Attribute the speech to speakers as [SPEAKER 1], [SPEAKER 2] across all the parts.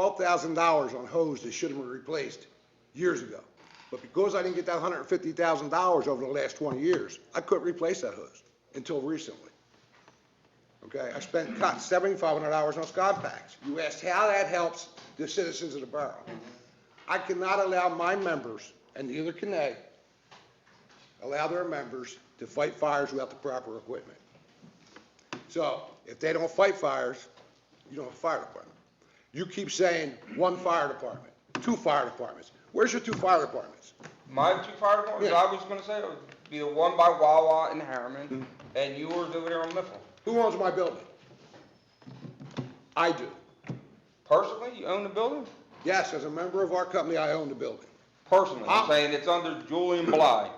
[SPEAKER 1] twelve thousand dollars on hose that should have been replaced years ago. But because I didn't get that hundred and fifty thousand dollars over the last twenty years, I couldn't replace that hose until recently. Okay, I spent, cut seventy-five hundred dollars on Scott packs. You asked how that helps the citizens of the borough. I cannot allow my members, and neither can they, allow their members to fight fires without the proper equipment. So if they don't fight fires, you don't have a fire department. You keep saying one fire department, two fire departments. Where's your two fire departments?
[SPEAKER 2] My two fire departments,
[SPEAKER 1] Yeah.
[SPEAKER 2] I was gonna say, would be the one by Wawa and
[SPEAKER 1] Mm-hmm.
[SPEAKER 2] Harriman, and yours over there on Mifflin.
[SPEAKER 1] Who owns my building? I do.
[SPEAKER 2] Personally, you own the building?
[SPEAKER 1] Yes, as a member of our company, I own the building.
[SPEAKER 2] Personally,
[SPEAKER 1] Ah.
[SPEAKER 2] I'm saying it's under Julian Bly.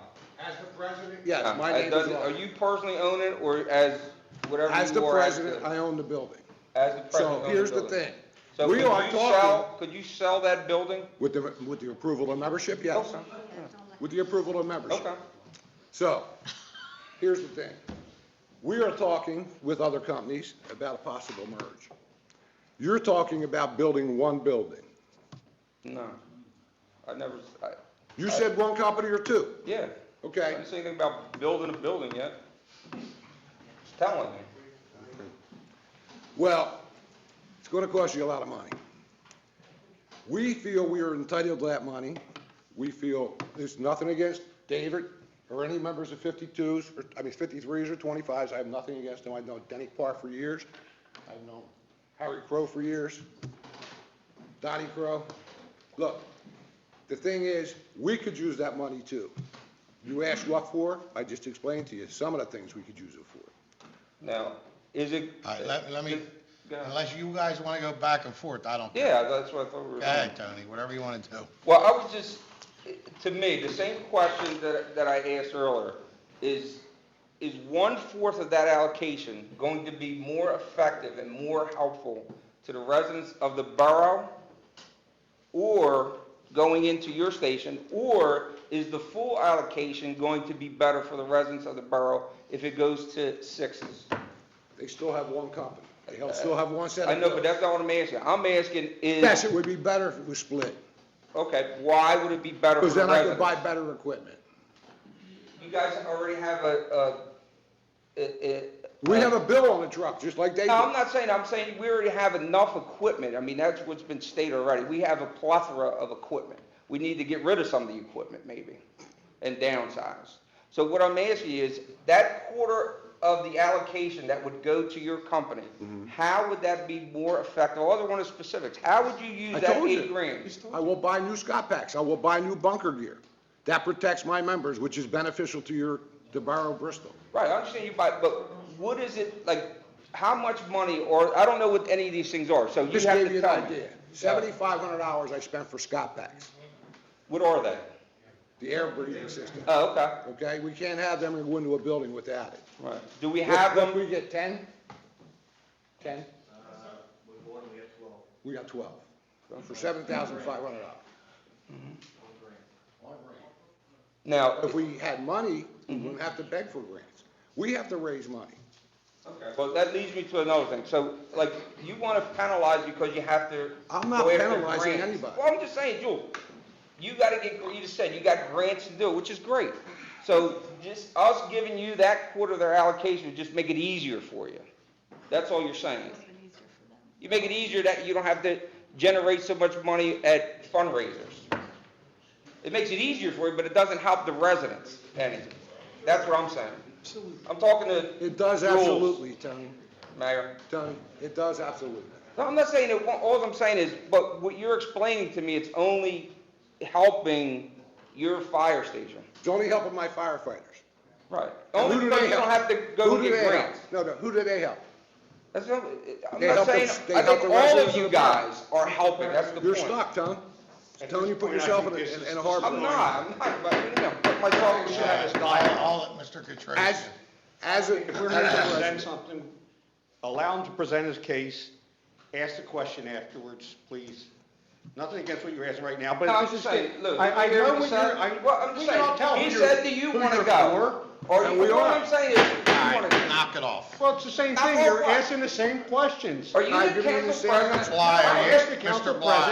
[SPEAKER 1] As the president? Yes,
[SPEAKER 2] Uh,
[SPEAKER 1] my
[SPEAKER 2] it
[SPEAKER 1] name is
[SPEAKER 2] doesn't- Are
[SPEAKER 1] Lawrence.
[SPEAKER 2] you personally own it, or as whatever
[SPEAKER 1] As
[SPEAKER 2] you
[SPEAKER 1] the
[SPEAKER 2] are as
[SPEAKER 1] president,
[SPEAKER 2] the-
[SPEAKER 1] I own the building.
[SPEAKER 2] As the president.
[SPEAKER 1] So
[SPEAKER 2] own
[SPEAKER 1] here's the
[SPEAKER 2] building?
[SPEAKER 1] thing.
[SPEAKER 2] So could
[SPEAKER 1] We
[SPEAKER 2] you
[SPEAKER 1] are talking,
[SPEAKER 2] sell, could you sell that building?
[SPEAKER 1] with the, with the approval of membership, yes.
[SPEAKER 2] Okay,
[SPEAKER 1] With the approval of membership.
[SPEAKER 2] Okay.
[SPEAKER 1] So, here's the thing. We are talking with other companies about a possible merge. You're talking about building one building.
[SPEAKER 2] No. I never, s- I,
[SPEAKER 1] You said one company or two,
[SPEAKER 2] yeah. I
[SPEAKER 1] okay?
[SPEAKER 2] didn't say anything about building a building yet. Just Telling me.
[SPEAKER 1] Well, it's gonna cost you a lot of money. We feel we are entitled to that money. We feel, there's nothing against David or any members of 52s, or, I mean, 53s or 25s. I have nothing against them. I've known Denny Parr for years. I've known Harry Crow for years. Donnie Crow. Look, the thing is, we could use that money too. You asked what for? I just explained to you some of the things we could use it for.
[SPEAKER 2] Now, is it?
[SPEAKER 3] All right, let, let me,
[SPEAKER 2] Go ahead.
[SPEAKER 3] unless you guys want to go back and forth, I don't. care.
[SPEAKER 2] Yeah, that's what I thought we were.
[SPEAKER 3] Go ahead, Tony, whatever you want to do.
[SPEAKER 2] Well, I was just, to me, the same question that, that I asked earlier, is, is one-fourth of that allocation going to be more effective and more helpful to the residents of the borough? Or going into your station, or is the full allocation going to be better for the residents of the borough if it goes to sixes?
[SPEAKER 1] They still have one company. They have- still have one set of.
[SPEAKER 2] Uh, I know,
[SPEAKER 1] bills.
[SPEAKER 2] but that's not what I'm asking. I'm asking
[SPEAKER 1] Yes,
[SPEAKER 2] is,
[SPEAKER 1] it would be better if it was split,
[SPEAKER 2] okay, why would it be better for
[SPEAKER 1] because
[SPEAKER 2] the
[SPEAKER 1] then
[SPEAKER 2] residents?
[SPEAKER 1] I could buy better equipment.
[SPEAKER 2] You guys already have a, a, a.
[SPEAKER 1] We have a bill on the truck, just like they
[SPEAKER 2] No, I'm
[SPEAKER 1] do.
[SPEAKER 2] not saying, I'm saying we already have enough equipment. I mean, that's what's been stated already. We have a plethora of equipment. We need to get rid of some of the equipment maybe and downsize. So what I'm asking you is, that quarter of the allocation that would go to your company,
[SPEAKER 1] Mm-hmm.
[SPEAKER 2] how would that be more effective? All I want is specifics. How would you
[SPEAKER 1] I
[SPEAKER 2] use that
[SPEAKER 1] told
[SPEAKER 2] eight
[SPEAKER 1] you.
[SPEAKER 2] grand?
[SPEAKER 1] I will buy new Scott packs, I will buy new bunker gear. That protects my members, which is beneficial to your, to Borough Bristol.
[SPEAKER 2] Right, I understand you buy, but what is it, like, how much money, or, I don't know what any of these things are, so you
[SPEAKER 1] Just
[SPEAKER 2] have
[SPEAKER 1] gave you
[SPEAKER 2] to
[SPEAKER 1] an
[SPEAKER 2] tell me.
[SPEAKER 1] idea. Seventy-five hundred dollars I spent for Scott packs,
[SPEAKER 2] What are they?
[SPEAKER 1] the air breathing system,
[SPEAKER 2] Oh, okay,
[SPEAKER 1] okay? We can't have them and go into a building without it.
[SPEAKER 2] right. Do we have
[SPEAKER 1] Look,
[SPEAKER 2] them,
[SPEAKER 1] We get ten? Ten? Uh, We got twelve. For seven thousand five hundred dollars.
[SPEAKER 2] now,
[SPEAKER 1] If we had money, we wouldn't have to beg for grants. We have to raise money.
[SPEAKER 2] well, that leads me to another thing, so, like, you wanna penalize because you have to.
[SPEAKER 1] I'm not
[SPEAKER 2] go after
[SPEAKER 1] penalizing
[SPEAKER 2] grants.
[SPEAKER 1] anybody.
[SPEAKER 2] Well, I'm just saying, Jewel, you gotta get, you just said, you got grants to do, which is great. So, just us giving you that quarter of their allocation would just make it easier for you. That's all you're saying. You make it easier that you don't have to generate so much money at fundraisers. It makes it easier for you, but it doesn't help the residents any. That's what I'm saying. I'm talking to
[SPEAKER 1] It does
[SPEAKER 2] Rules.
[SPEAKER 1] absolutely, Tony.
[SPEAKER 2] Mayor.
[SPEAKER 1] Tony, it does absolutely.
[SPEAKER 2] No, I'm not saying it, won't- all I'm saying is, but what you're explaining to me, it's only helping your fire station.
[SPEAKER 1] It's only helping my firefighters.
[SPEAKER 2] Right.
[SPEAKER 1] And who
[SPEAKER 2] Only
[SPEAKER 1] do
[SPEAKER 2] because
[SPEAKER 1] they
[SPEAKER 2] you don't
[SPEAKER 1] help?
[SPEAKER 2] have to go
[SPEAKER 1] Who do
[SPEAKER 2] get
[SPEAKER 1] they help?
[SPEAKER 2] grants.
[SPEAKER 1] No, no, who do they help?
[SPEAKER 2] That's not, I'm
[SPEAKER 1] They
[SPEAKER 2] not
[SPEAKER 1] help the-
[SPEAKER 2] saying,
[SPEAKER 1] they
[SPEAKER 2] I
[SPEAKER 1] help
[SPEAKER 2] think
[SPEAKER 1] the
[SPEAKER 2] all
[SPEAKER 1] residents
[SPEAKER 2] of you
[SPEAKER 1] of the borough.
[SPEAKER 2] guys are helping, that's the point.
[SPEAKER 1] You're stuck, Tony. Tony, you put
[SPEAKER 4] point, I
[SPEAKER 1] yourself in
[SPEAKER 4] think
[SPEAKER 1] a,
[SPEAKER 4] this
[SPEAKER 1] in
[SPEAKER 4] is
[SPEAKER 1] in a hard
[SPEAKER 2] I'm
[SPEAKER 1] position.
[SPEAKER 2] not, I'm not, but, you know, put myself in
[SPEAKER 3] Yeah,
[SPEAKER 2] shadow.
[SPEAKER 3] it's dial- I'll let Mr. Katrina.
[SPEAKER 1] As, as, a- if we're here for the
[SPEAKER 4] present
[SPEAKER 1] residents,
[SPEAKER 4] something, allow him to present his case, ask the question afterwards, please. Nothing against what you're asking right now, but
[SPEAKER 2] No, I'm
[SPEAKER 4] this
[SPEAKER 2] just
[SPEAKER 4] is,
[SPEAKER 2] saying, look.
[SPEAKER 4] I, I
[SPEAKER 2] you hear
[SPEAKER 4] know
[SPEAKER 2] what
[SPEAKER 4] what
[SPEAKER 2] he
[SPEAKER 4] you're,
[SPEAKER 2] said?
[SPEAKER 4] I,
[SPEAKER 2] Well, I'm just
[SPEAKER 4] we can
[SPEAKER 2] saying,
[SPEAKER 4] all tell
[SPEAKER 2] he
[SPEAKER 4] who you're-
[SPEAKER 2] said, do you
[SPEAKER 4] who
[SPEAKER 2] wanna
[SPEAKER 4] you're
[SPEAKER 2] go?
[SPEAKER 4] for,
[SPEAKER 2] Or
[SPEAKER 1] And
[SPEAKER 2] you,
[SPEAKER 1] we
[SPEAKER 2] what
[SPEAKER 1] are.
[SPEAKER 2] I'm saying is, if you
[SPEAKER 3] All
[SPEAKER 2] wanna-
[SPEAKER 3] right, knock it off.
[SPEAKER 4] Well, it's the same
[SPEAKER 2] Not
[SPEAKER 4] thing,
[SPEAKER 2] all
[SPEAKER 4] you're
[SPEAKER 2] right.
[SPEAKER 4] asking the same questions.
[SPEAKER 2] are you
[SPEAKER 1] I
[SPEAKER 2] the
[SPEAKER 1] give you the
[SPEAKER 2] council
[SPEAKER 1] same
[SPEAKER 2] president?
[SPEAKER 3] Why are you-
[SPEAKER 4] I asked the council
[SPEAKER 3] Mr. Bly,